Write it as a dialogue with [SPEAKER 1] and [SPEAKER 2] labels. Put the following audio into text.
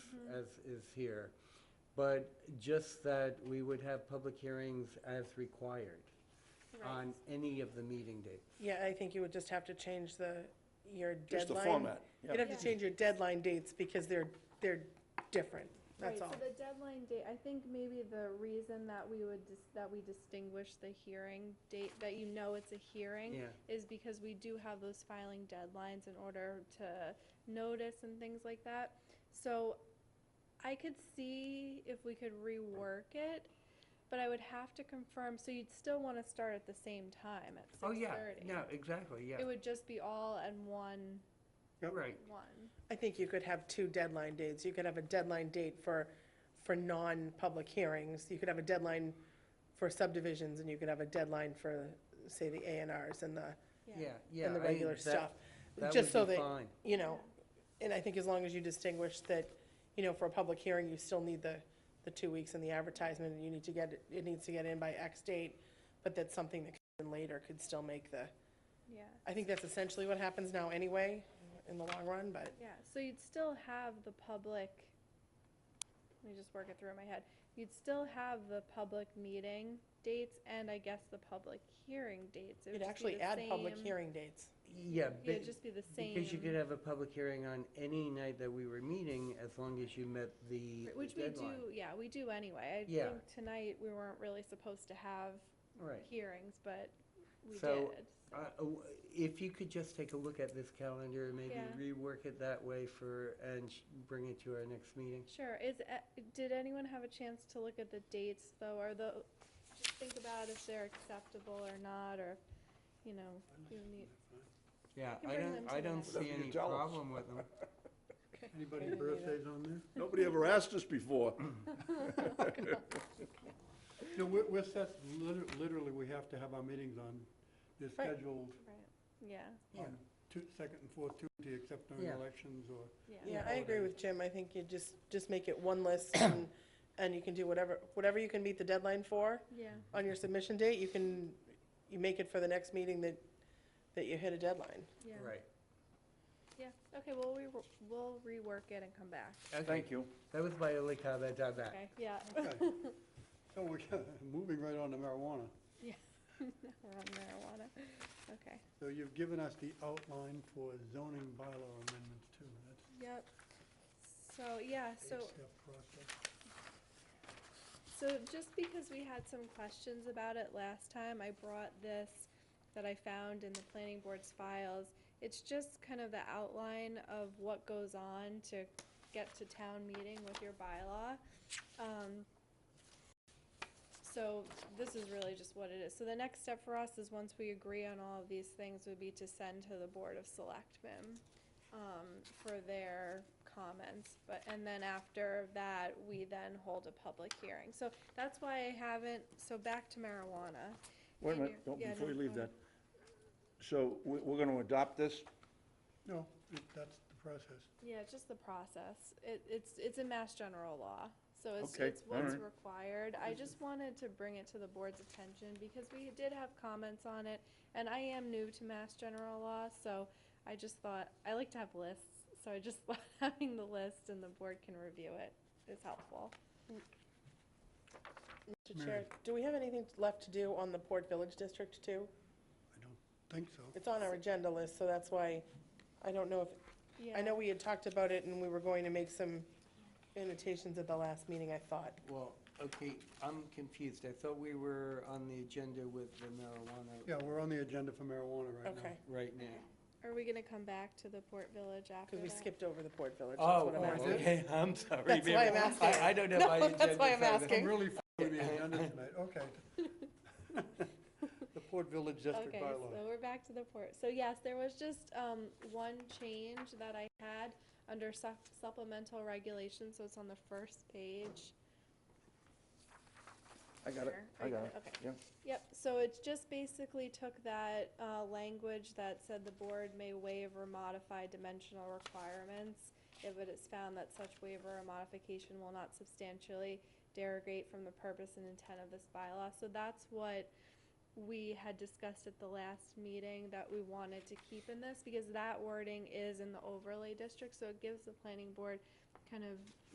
[SPEAKER 1] as is here, but just that we would have public hearings as required on any of the meeting dates.
[SPEAKER 2] Yeah, I think you would just have to change the, your deadline.
[SPEAKER 3] Just the format, yeah.
[SPEAKER 2] You'd have to change your deadline dates because they're, they're different, that's all.
[SPEAKER 4] Right, so the deadline date, I think maybe the reason that we would, dis- that we distinguish the hearing date, that you know it's a hearing,
[SPEAKER 1] Yeah.
[SPEAKER 4] is because we do have those filing deadlines in order to notice and things like that. So I could see if we could rework it, but I would have to confirm, so you'd still wanna start at the same time at six
[SPEAKER 1] Oh,
[SPEAKER 4] thirty?
[SPEAKER 1] yeah, no, exactly,
[SPEAKER 4] It
[SPEAKER 1] yeah,
[SPEAKER 4] would just be all in one,
[SPEAKER 1] right,
[SPEAKER 4] one.
[SPEAKER 2] I think you could have two deadline dates. You could have a deadline date for, for non-public hearings. You could have a deadline for subdivisions, and you could have a deadline for, say, the A and Rs and the,
[SPEAKER 1] yeah, yeah.
[SPEAKER 2] and the
[SPEAKER 1] I-
[SPEAKER 2] regular
[SPEAKER 1] that-
[SPEAKER 2] stuff.
[SPEAKER 1] that
[SPEAKER 2] Just
[SPEAKER 1] would
[SPEAKER 2] so
[SPEAKER 1] be
[SPEAKER 2] that,
[SPEAKER 1] fine.
[SPEAKER 2] you know, and I think as long as you distinguish that, you know, for a public hearing, you still need the, the two weeks and the advertisement, and you need to get, it it needs to get in by X date, but that's something that comes in later could still make the,
[SPEAKER 4] Yeah.
[SPEAKER 2] I think that's essentially what happens now anyway, in the long run, but.
[SPEAKER 4] Yeah, so you'd still have the public, let me just work it through in my head. You'd still have the public meeting dates and I guess the public hearing dates. It would
[SPEAKER 2] You'd
[SPEAKER 4] just be
[SPEAKER 2] actually
[SPEAKER 4] the
[SPEAKER 2] add public
[SPEAKER 4] same-
[SPEAKER 2] hearing dates.
[SPEAKER 1] Yeah.
[SPEAKER 4] Yeah,
[SPEAKER 1] ba-
[SPEAKER 4] it'd just be the same.
[SPEAKER 1] Because you could have a public hearing on any night that we were meeting, as long as you met the
[SPEAKER 4] Right, Which we
[SPEAKER 1] deadline.
[SPEAKER 4] do, yeah, we do anyway. I
[SPEAKER 1] Yeah.
[SPEAKER 4] think tonight we weren't really supposed to have
[SPEAKER 1] Right.
[SPEAKER 4] hearings, but we
[SPEAKER 1] So,
[SPEAKER 4] did.
[SPEAKER 1] Uh, w- If you could just take a look at this calendar, and maybe
[SPEAKER 4] Yeah.
[SPEAKER 1] rework it that way for, and sh- bring it to our next meeting.
[SPEAKER 4] Sure, is, uh, did anyone have a chance to look at the dates though, or the, just think about if they're acceptable or not, or, you know, you need.
[SPEAKER 1] Yeah,
[SPEAKER 4] can
[SPEAKER 1] I
[SPEAKER 4] bring
[SPEAKER 1] don't,
[SPEAKER 4] them to
[SPEAKER 1] I
[SPEAKER 4] the
[SPEAKER 1] don't
[SPEAKER 4] next
[SPEAKER 1] see
[SPEAKER 3] meeting.
[SPEAKER 1] any
[SPEAKER 3] Jealous.
[SPEAKER 1] problem with them.
[SPEAKER 5] Anybody's birthdays on there?
[SPEAKER 3] Nobody ever asked us before.
[SPEAKER 5] No, we're, we're set, liter- literally, we have to have our meetings on, they're
[SPEAKER 2] Right.
[SPEAKER 5] scheduled
[SPEAKER 4] Right, yeah,
[SPEAKER 1] Yeah.
[SPEAKER 5] on two, second and fourth Tuesday, except during
[SPEAKER 1] Yeah.
[SPEAKER 5] elections or.
[SPEAKER 4] yeah.
[SPEAKER 2] Yeah, I agree with Jim. I think you just, just make it one list and, and you can do whatever, whatever you can meet the deadline for
[SPEAKER 4] Yeah,
[SPEAKER 2] on your submission date, you can, you make it for the next meeting that, that you hit a deadline.
[SPEAKER 4] yeah.
[SPEAKER 1] Right.
[SPEAKER 4] Yeah, okay, well, we, wor- we'll rework it and come back,
[SPEAKER 3] Thank you.
[SPEAKER 1] That was my only comment on that.
[SPEAKER 4] okay? Yeah.
[SPEAKER 5] Okay. So we're moving right on to marijuana.
[SPEAKER 4] Yeah. We're on marijuana, okay.
[SPEAKER 5] So you've given us the outline for zoning bylaw amendments too. That's
[SPEAKER 4] Yep. So, yeah,
[SPEAKER 5] the
[SPEAKER 4] so.
[SPEAKER 5] eight-step process.
[SPEAKER 4] So just because we had some questions about it last time, I brought this that I found in the planning board's files. It's just kind of the outline of what goes on to get to town meeting with your bylaw. Um, so this is really just what it is. So the next step for us is once we agree on all of these things would be to send to the Board of Selectmen um, for their comments, but, and then after that, we then hold a public hearing. So that's why I haven't, so back to marijuana.
[SPEAKER 3] Wait a
[SPEAKER 4] In
[SPEAKER 3] minute,
[SPEAKER 4] your-
[SPEAKER 3] don't-
[SPEAKER 4] yeah,
[SPEAKER 3] before
[SPEAKER 4] no,
[SPEAKER 3] you leave
[SPEAKER 4] go
[SPEAKER 3] that.
[SPEAKER 4] ahead.
[SPEAKER 3] So we- we're going to adopt this?
[SPEAKER 5] No, it- that's the process.
[SPEAKER 4] Yeah, it's just the process. It, it's, it's in mass general law, so it's,
[SPEAKER 3] Okay,
[SPEAKER 4] it's what's
[SPEAKER 3] alright.
[SPEAKER 4] required. I just wanted to bring it to the board's attention because we did have comments on it, and I am new to mass general law, so I just thought, I like to have lists, so I just thought having the list and the board can review it is helpful.
[SPEAKER 2] Mr. Chair, do we have anything left to do on the Port Village District too?
[SPEAKER 5] I don't think so.
[SPEAKER 2] It's on our agenda list, so that's why, I don't know if, I know we had talked about it and we were going to make some annotations at the last meeting, I thought.
[SPEAKER 1] Well, okay, I'm confused. I thought we were on the agenda with the marijuana
[SPEAKER 5] Yeah, we're on the agenda for marijuana right now.
[SPEAKER 2] Okay,
[SPEAKER 1] right now.
[SPEAKER 4] Are we gonna come back to the Port Village after
[SPEAKER 2] because we
[SPEAKER 4] that?
[SPEAKER 2] skipped over the Port Village, that's
[SPEAKER 1] Oh,
[SPEAKER 2] what I'm
[SPEAKER 1] oh,
[SPEAKER 2] asking.
[SPEAKER 1] okay, I'm sorry.
[SPEAKER 2] That's why
[SPEAKER 1] ma'am.
[SPEAKER 2] I'm asking.
[SPEAKER 1] I, I don't have
[SPEAKER 2] No,
[SPEAKER 1] my agenda.
[SPEAKER 2] that's why I'm
[SPEAKER 1] so
[SPEAKER 2] asking.
[SPEAKER 5] I'm really following the agenda tonight, okay. The Port Village District
[SPEAKER 4] Okay, so
[SPEAKER 5] bylaw.
[SPEAKER 4] we're back to the port. So yes, there was just, um, one change that I had under sup- supplemental regulations, so it's on the first page.
[SPEAKER 3] I got it,
[SPEAKER 4] Sure. Oh,
[SPEAKER 3] I
[SPEAKER 4] you
[SPEAKER 3] got it.
[SPEAKER 4] Okay.
[SPEAKER 3] Yeah.
[SPEAKER 4] Yep, so it's just basically took that, uh, language that said the board may waive or modify dimensional requirements if it is found that such waiver or modification will not substantially derogate from the purpose and intent of this bylaw. So that's what we had discussed at the last meeting that we wanted to keep in this, because that wording is in the overlay district, so it gives the planning board kind of